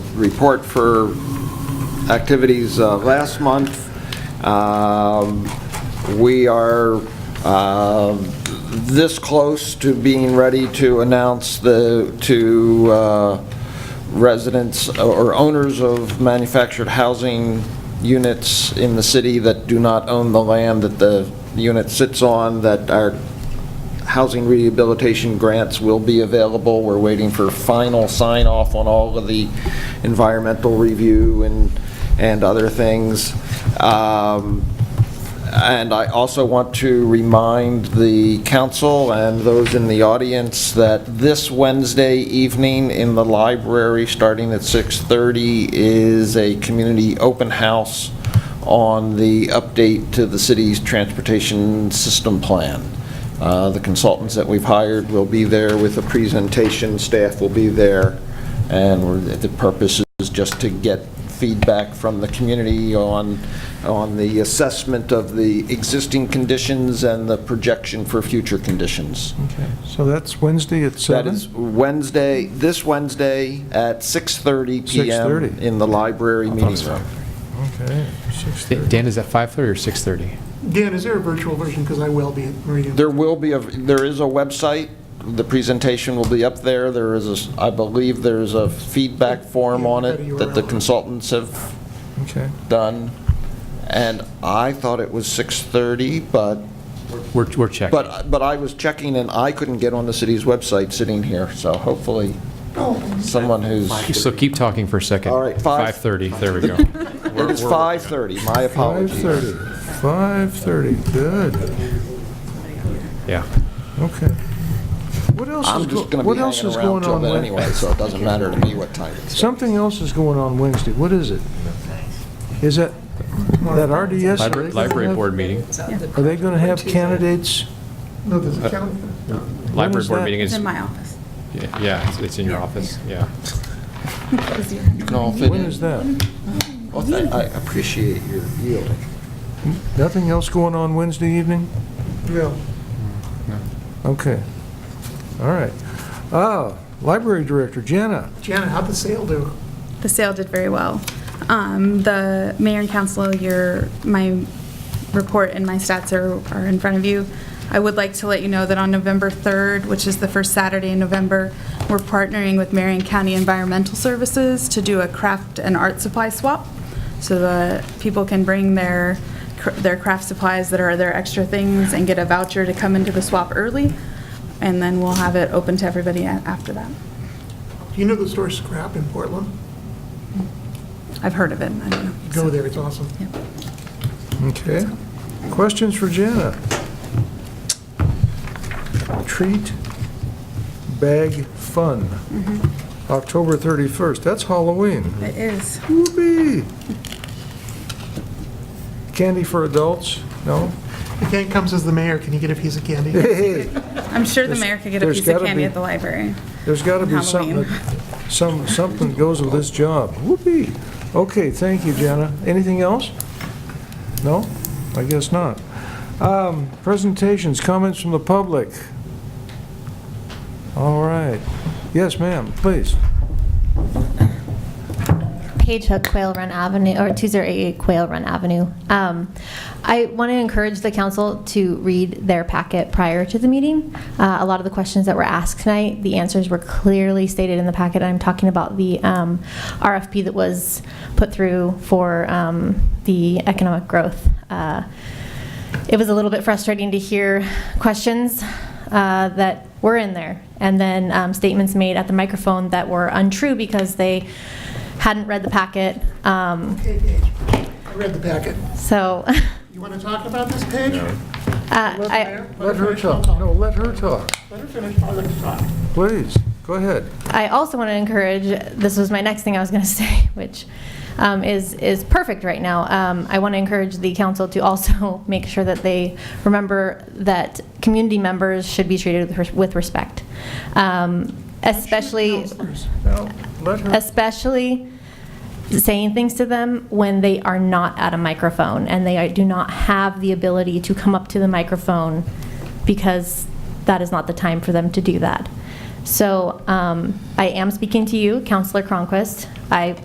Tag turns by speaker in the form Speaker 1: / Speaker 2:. Speaker 1: report for activities uh, last month. Um, We are um, this close to being ready to announce the, to uh, residents or owners of manufactured housing units in the city that do not own the land that the unit sits on, that our housing rehabilitation grants will be available. We're waiting for final sign-off on all of the environmental review and, and other things. Um, And I also want to remind the council and those in the audience that this Wednesday evening in the library, starting at 6:30, is a community open house on the update to the city's transportation system plan. Uh, The consultants that we've hired will be there with a presentation, staff will be there, and we're- the purpose is just to get feedback from the community on, on the assessment of the existing conditions and the projection for future conditions.
Speaker 2: Okay, so that's Wednesday at
Speaker 1: That
Speaker 2: seven.
Speaker 1: is Wednesday, this Wednesday at 6:30 PM
Speaker 2: 6:30.
Speaker 1: in the library meeting room.
Speaker 2: Okay, six
Speaker 3: Dan,
Speaker 2: thirty.
Speaker 3: Dan, is that 5:30 or 6:30?
Speaker 4: Dan, is there a virtual version? Because I will be at Meridian.
Speaker 1: There will be, a there is a website, the presentation will be up there, there is, a s- I believe there is a feedback form on it that the consultants have
Speaker 2: Okay,
Speaker 1: done, and I thought it was 6:30, but,
Speaker 3: We're, we're checking.
Speaker 1: but, but I was checking and I couldn't get on the city's website sitting here, so hopefully someone who's,
Speaker 3: So keep talking for a second.
Speaker 1: All right, five-
Speaker 3: 5:30, there we go.
Speaker 1: it is 5:30, my
Speaker 2: five
Speaker 1: apologies.
Speaker 2: thirty. Five thirty. good,
Speaker 3: Yeah.
Speaker 2: okay. What else is,
Speaker 1: I'm
Speaker 2: go-
Speaker 1: just going to
Speaker 2: what
Speaker 1: be
Speaker 2: else is
Speaker 1: hanging around
Speaker 2: going
Speaker 1: till
Speaker 2: on?
Speaker 1: then
Speaker 2: Wed-
Speaker 1: anyway, so it doesn't matter to me what time it's.
Speaker 2: Something else is going on Wednesday, what is it? Is that, that RDS? are they
Speaker 3: Library,
Speaker 2: gonna
Speaker 3: library
Speaker 2: have-
Speaker 3: board meeting,
Speaker 2: Are they going to have candidates?
Speaker 4: No, there's a calendar.
Speaker 3: library
Speaker 2: is
Speaker 3: board
Speaker 2: that?
Speaker 3: meeting
Speaker 5: It's
Speaker 3: is,
Speaker 5: in my office.
Speaker 3: yeah, it's- it's in your office, yeah.
Speaker 1: You can all fit
Speaker 2: When
Speaker 1: in.
Speaker 2: is that?
Speaker 1: Well, th- I appreciate your yielding.
Speaker 2: Nothing else going on Wednesday evening?
Speaker 4: No.
Speaker 2: Okay, all right. Ah, library director, Jana.
Speaker 4: Janet, how'd the sale do?
Speaker 5: The sale did very well. Um, The mayor and council, your, my report and my stats are, are in front of you. I would like to let you know that on November 3rd, which is the first Saturday in November, we're partnering with Marion County Environmental Services to do a craft and art supply swap. So the people can bring their, cr- their craft supplies that are their extra things and get a voucher to come into the swap early. And then we'll have it open to everybody a- after that.
Speaker 4: Do you know the store Scrap in Portland?
Speaker 5: I've heard of it. I don't know.
Speaker 4: Go there, it's awesome.
Speaker 2: Okay. Questions for Jana? Treat Bag Fun, October 31st. That's Halloween.
Speaker 5: It is.
Speaker 2: Whoopee! Candy for adults? No?
Speaker 4: If Dan comes as the mayor, can you get a piece of candy?
Speaker 2: Hey,
Speaker 5: I'm sure the mayor could get a
Speaker 2: there's
Speaker 5: piece of
Speaker 2: gotta
Speaker 5: candy
Speaker 2: be-
Speaker 5: at the library.
Speaker 2: there's got to be something,
Speaker 5: Halloween.
Speaker 2: that- some, something goes with this job. Whoopee! Okay, thank you, Jana. Anything else? No? I guess not. Um, Presentations, comments from the public. All right. Yes, ma'am, please.
Speaker 6: Page Hook Quail Run Avenue, or 2088 Quail Run Avenue. Um, I want to encourage the council to read their packet prior to the meeting. Uh, A lot of the questions that were asked tonight, the answers were clearly stated in the packet. I'm talking about the um, RFP that was put through for um, the economic growth. Uh, It was a little bit frustrating to hear questions uh, that were in there, and then um, statements made at the microphone that were untrue because they hadn't read the packet. Um,
Speaker 4: Hey, Paige, I read the packet.
Speaker 6: so,
Speaker 4: You want to talk about this, Paige?
Speaker 6: uh,
Speaker 4: Let the
Speaker 6: I,
Speaker 4: mayor-
Speaker 2: Let her
Speaker 4: finish, I'll
Speaker 2: talk. No, let her talk.
Speaker 4: Let her finish, I'll let her talk.
Speaker 2: Please, go ahead.
Speaker 6: I also want to encourage, this was my next thing I was going to say, which um, is, is perfect right now. Um, I want to encourage the council to also make sure that they remember that community members should be treated with res- with respect. Um, Especially,
Speaker 2: No, let her,
Speaker 6: especially saying things to them when they are not at a microphone and they do not have the ability to come up to the microphone because that is not the time for them to do that. So um, I am speaking to you, Counselor Cronquist. I